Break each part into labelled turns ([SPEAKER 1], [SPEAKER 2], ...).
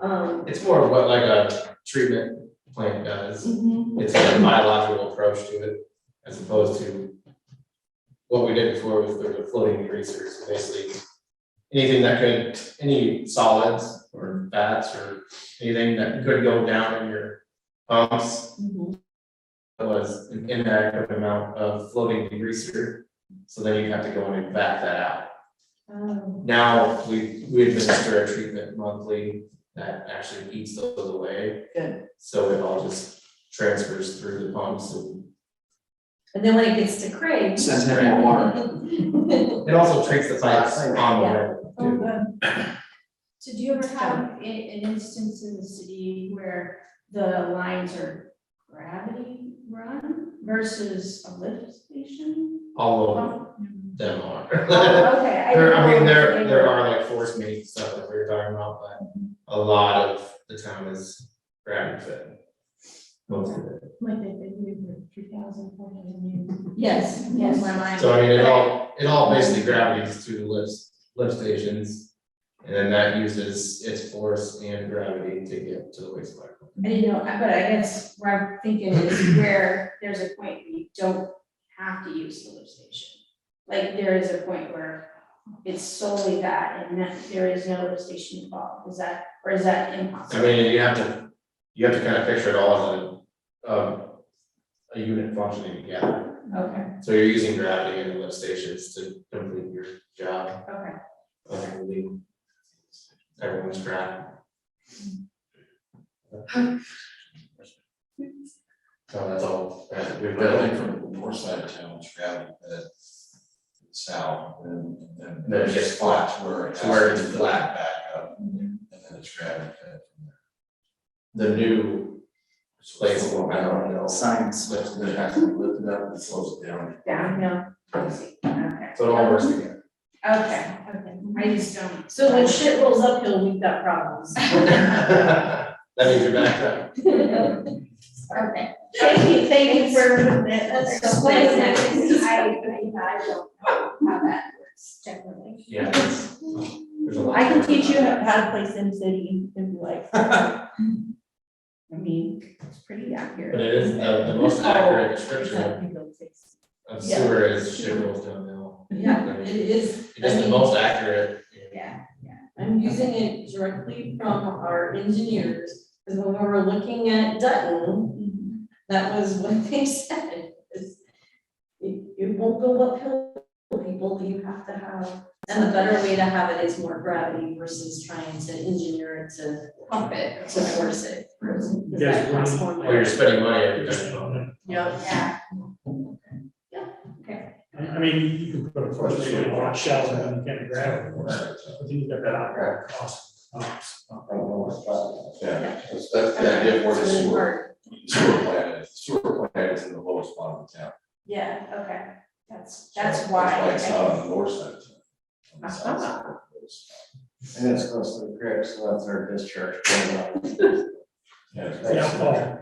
[SPEAKER 1] Um,
[SPEAKER 2] It's more of what like a treatment plant does.
[SPEAKER 1] mhm,
[SPEAKER 2] It's a biological approach to it as opposed to what we did before with the floating greasers, basically anything that could, any solids or fats or anything that could go down in your pumps
[SPEAKER 1] mhm.
[SPEAKER 2] was an inadequate amount of floating degreaser. So then you'd have to go in and back that out.
[SPEAKER 1] Um,
[SPEAKER 2] Now, we, we administer a treatment monthly that actually eats those away.
[SPEAKER 1] Good.
[SPEAKER 2] So it all just transfers through the pumps and
[SPEAKER 1] And then when it gets to Craig. uh,
[SPEAKER 3] Since having water.
[SPEAKER 1] Oh,
[SPEAKER 2] it also treats the pipes on the
[SPEAKER 1] Yeah.
[SPEAKER 2] level. too.
[SPEAKER 1] good.
[SPEAKER 4] Oh, So do you ever have i- an instance in the city where the lines are gravity run versus a lift station?
[SPEAKER 2] All of
[SPEAKER 4] Oh,
[SPEAKER 2] them are.
[SPEAKER 4] Okay, I.
[SPEAKER 2] There, I mean,
[SPEAKER 4] didn't know if
[SPEAKER 2] there,
[SPEAKER 4] they
[SPEAKER 2] there
[SPEAKER 4] were-
[SPEAKER 2] are like force main stuff that we were talking about, but a lot of the town is gravity fed. Most of it.
[SPEAKER 4] Like they did with three thousand four hundred years.
[SPEAKER 1] Yes,
[SPEAKER 4] Yes,
[SPEAKER 1] yes.
[SPEAKER 4] my mind.
[SPEAKER 2] So I mean, it all, it all basically gravitates to lifts, lift stations. And then that uses its force and gravity to get to the wastewater.
[SPEAKER 4] I didn't know, but I guess where I'm thinking is where there's a point where you don't have to use the lift station. Like, there is a point where it's solely that and that there is no lift station involved, is that, or is that
[SPEAKER 2] I
[SPEAKER 4] impossible?
[SPEAKER 2] mean, you have to, you have to kind of picture it all as a, um, a unit functioning together.
[SPEAKER 4] Okay,
[SPEAKER 2] So you're using gravity and the lift stations to complete your job
[SPEAKER 4] okay,
[SPEAKER 2] of moving everyone's gravity. So that's all, that we've
[SPEAKER 3] But I
[SPEAKER 2] done.
[SPEAKER 3] think from the north side of town, it's gravel pit, south, and then.
[SPEAKER 2] Then it gets flat.
[SPEAKER 3] To where it
[SPEAKER 2] To where
[SPEAKER 3] has
[SPEAKER 2] it's
[SPEAKER 3] to
[SPEAKER 2] flat.
[SPEAKER 3] Back up, and then it's gravel pit.
[SPEAKER 2] the new place, I don't know.
[SPEAKER 3] Science slips, and it has to be lifted up and slows it down.
[SPEAKER 4] downhill, I see, okay,
[SPEAKER 2] So it all works together.
[SPEAKER 4] okay, okay,
[SPEAKER 1] mm-hmm.
[SPEAKER 4] I just don't.
[SPEAKER 1] So when shit rolls uphill, we've got problems.
[SPEAKER 2] That means you're back up.
[SPEAKER 1] Okay,
[SPEAKER 4] Okay.
[SPEAKER 1] thank you, thank you for
[SPEAKER 4] Explain
[SPEAKER 1] explaining
[SPEAKER 4] that, because
[SPEAKER 1] that.
[SPEAKER 4] I, I, I don't know how that works technically.
[SPEAKER 2] Yeah. it's- there's a lot.
[SPEAKER 1] I can teach you how to play Sim City in like. I mean, it's pretty accurate.
[SPEAKER 2] But it is uh, the, the most accurate description of
[SPEAKER 1] Oh. Yeah.
[SPEAKER 2] sewer is shit rolls downhill.
[SPEAKER 1] Yeah, it is,
[SPEAKER 2] It is the most accurate.
[SPEAKER 4] Yeah,
[SPEAKER 1] I'm using it directly from our engineers, because when we were looking at Dutton, that was what they said. is It, it won't go uphill, people, you have to have, and the better way to have it is more gravity versus trying to engineer it to pump it, to force it. Does that cost more
[SPEAKER 2] Or you're
[SPEAKER 1] money?
[SPEAKER 2] spending money every day.
[SPEAKER 1] Yep.
[SPEAKER 4] yeah.
[SPEAKER 5] I, I mean, you can put a force main on shells and you can grab it, but then you got that ongoing cost.
[SPEAKER 3] I don't know what's about. Yeah, that's, that's the idea of where the sewer, sewer plant is, sewer plant is in the lowest bottom of town.
[SPEAKER 1] Yeah.
[SPEAKER 4] Okay, that's,
[SPEAKER 3] So
[SPEAKER 4] that's why. Uh-huh.
[SPEAKER 3] It's
[SPEAKER 4] I-
[SPEAKER 3] not on the north side of town. on the south side.
[SPEAKER 6] And it's close to the grip, so that's our discharge. going up.
[SPEAKER 3] Yeah, it's-
[SPEAKER 5] Yeah,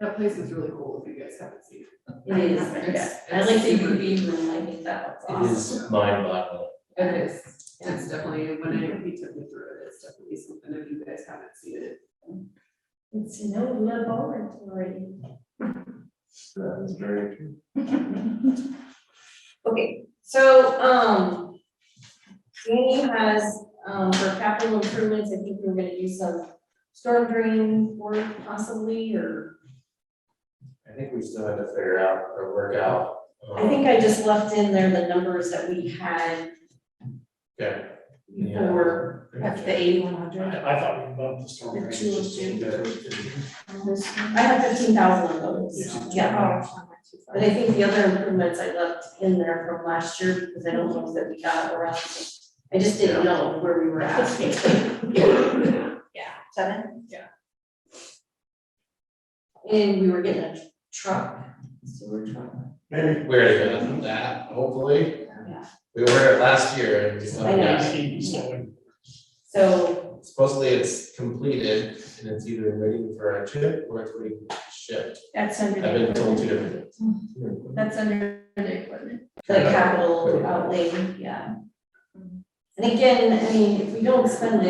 [SPEAKER 7] That place is really cool if you guys haven't seen it.
[SPEAKER 1] It is, yeah. I like the UV room, I think that
[SPEAKER 2] It
[SPEAKER 1] was
[SPEAKER 2] is mind boggling.
[SPEAKER 7] It is,
[SPEAKER 1] Yeah.
[SPEAKER 7] it's definitely, when I, he took me through it, it's definitely something if you guys haven't seen it.
[SPEAKER 1] awesome. It's no laboratory.
[SPEAKER 6] That is very true.
[SPEAKER 1] Okay, so, um, Danny has, um, for capital improvements, I think we we're gonna do some storm drain work possibly, or,
[SPEAKER 2] I think we still have to figure out or work out. um,
[SPEAKER 1] I think I just left in there the numbers that we had
[SPEAKER 2] Yeah. yeah.
[SPEAKER 1] before,
[SPEAKER 4] That's the eighty-one hundred.
[SPEAKER 5] I, I thought we bumped the storm
[SPEAKER 1] The
[SPEAKER 5] drainage
[SPEAKER 1] two of
[SPEAKER 5] system.
[SPEAKER 1] I had fifteen thousand of those,
[SPEAKER 5] Yeah.
[SPEAKER 1] yeah. oh, But I think the other improvements I left in there from last year, because I don't know that we got around, to. I just didn't know where we were at. Yeah. Seven?
[SPEAKER 7] Yeah.
[SPEAKER 1] And we were getting a truck, sewer truck.
[SPEAKER 5] Maybe
[SPEAKER 2] We're gonna do that, hopefully.
[SPEAKER 1] Yeah.
[SPEAKER 2] We ordered it last year and we still
[SPEAKER 1] I
[SPEAKER 2] haven't
[SPEAKER 1] know.
[SPEAKER 2] got it.
[SPEAKER 5] nineteen, so
[SPEAKER 1] So,
[SPEAKER 2] Supposedly it's completed and it's either waiting for a chip or it's waiting for a ship.
[SPEAKER 4] That's under
[SPEAKER 2] I've been told two
[SPEAKER 4] the,
[SPEAKER 2] different things.
[SPEAKER 4] that's under the equipment.
[SPEAKER 1] the capital outlay, yeah. And again, I mean, if we don't spend it.